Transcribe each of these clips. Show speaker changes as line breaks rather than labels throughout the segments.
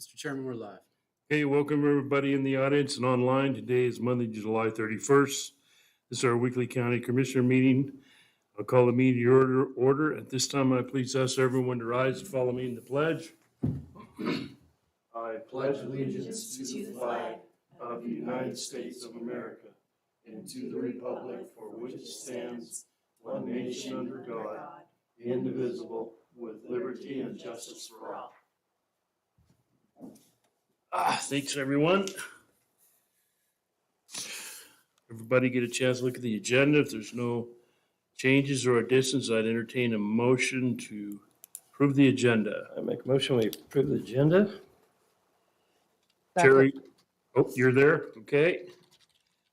Mr. Chairman, we're live.
Hey, welcome everybody in the audience and online. Today is Monday, July 31st. This is our weekly county commissioner meeting. I'll call the meeting to order, order. At this time, I please ask everyone to rise and follow me in the pledge. I
pledge allegiance to the flag
of the United States of America and to the republic for which it stands, one nation under God, indivisible, with liberty and justice for all. Ah, thanks, everyone. Everybody get a chance to look at the agenda. If there's no changes or additions, I'd entertain a motion to approve the agenda.
I make a motion, we approve the agenda.
Terry, oh, you're there, okay.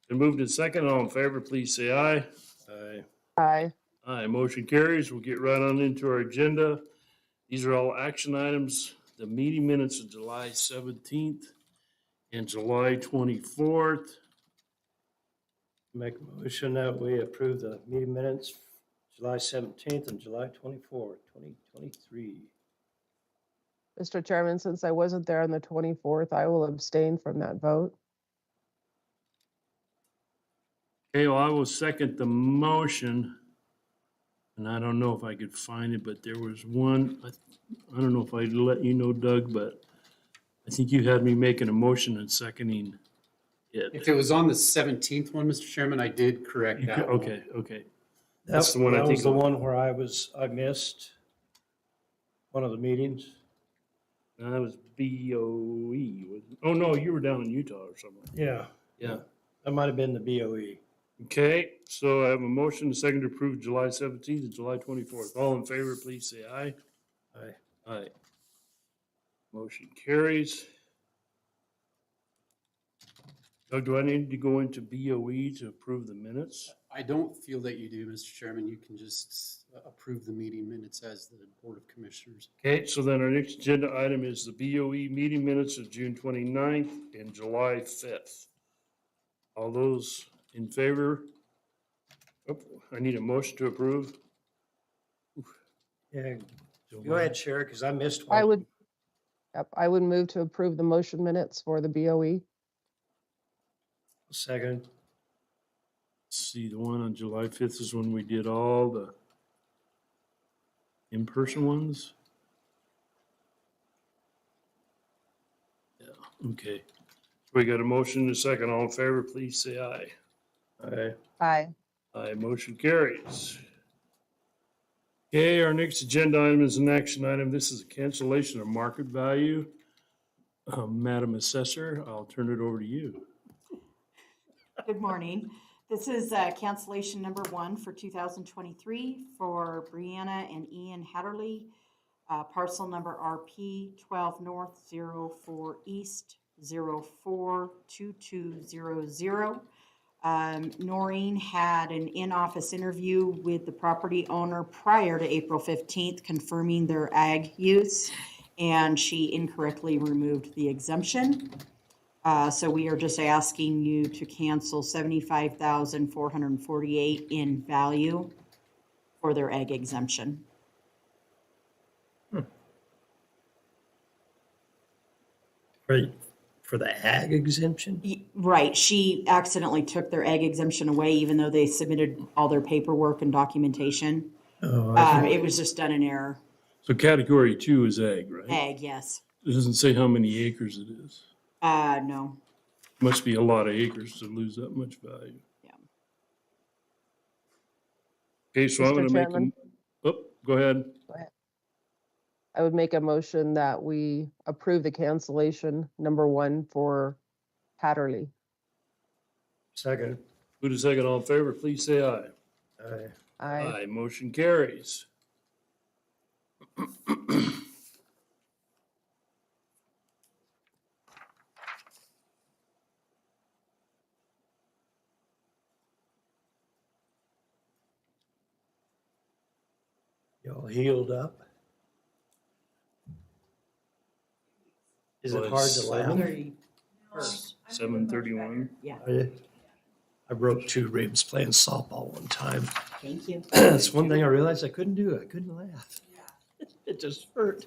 Been moved in second, all in favor, please say aye.
Aye.
Aye.
Aye, motion carries. We'll get right on into our agenda. These are all action items. The meeting minutes of July seventeenth and July twenty-fourth.
Make a motion that we approve the meeting minutes, July seventeenth and July twenty-fourth, twenty twenty-three.
Mr. Chairman, since I wasn't there on the 24th, I will abstain from that vote.
Okay, well, I will second the motion. And I don't know if I could find it, but there was one, I, I don't know if I let you know, Doug, but I think you had me making a motion and seconding it.
If it was on the 17th one, Mr. Chairman, I did correct
You
that.
ca-
one.
Okay, okay. That's the one I
That
think
was the
of.
one where I was, I missed one of the meetings.
That was BOE. wasn't- Oh, no, you were down in Utah or somewhere.
Yeah.
Yeah.
That might have been the E. BOE.
Okay, so I have a motion, a second to approve July seventeenth and July twenty-fourth. All in favor, please say aye.
Aye.
Aye. Motion carries. Doug, do I need to go into BOE to approve the minutes?
I don't feel that you do, Mr. Chairman. You can just uh, approve the meeting minutes as the Board of Commissioners.
Okay, so then our next agenda item is the BOE meeting minutes of June 29th and July fifth. All those in favor? Oh, I need a motion to approve.
Yeah, go ahead, Sherry, because I missed one.
I would, yep, I would move to approve the motion minutes for the E. BOE.
Second.
See, the one on July fifth is when we did all the in-person ones? Yeah, okay. We got a motion and a second. All in favor, please say aye.
Aye.
Aye.
Aye, motion carries. Okay, our next agenda item is an action item. This is a cancellation of market value. Uh, Madam Assessor, I'll turn it over to you.
Good morning. This is uh, cancellation number one for 2023 for Brianna and Ian Hatterly, uh, parcel number RP 12 North 04 East 042200. Um, Noreen had an in-office interview with the property owner prior to April 15th confirming their ag use, and she incorrectly removed the exemption. Uh, so we are just asking you to cancel seventy-five thousand four hundred and forty-eight in value for their egg exemption.
For, for the ag exemption?
Y- Right, she accidentally took their egg exemption away even though they submitted all their paperwork and documentation.
Oh, I
Uh,
think-
it was just done in error.
So category two is ag, right?
Egg, yes.
It doesn't say how many acres it is.
Uh, no,
Must be a lot of acres to lose that much value.
Yeah.
Okay, so I'm
Mr.
gonna make,
Chairman?
a- oh, go ahead.
I would make a motion that we approve the cancellation number one for Hatterly.
Second. Uh,
Who does second all in favor, please say aye.
Aye.
Aye.
Aye, motion carries.
Y'all healed up? Is
Well,
it hard
it's-
to laugh?
Seven thirty-one.
I- I broke two ribs playing softball one time.
thank you.
That's one thing I realized I couldn't do. I couldn't laugh. It just hurt.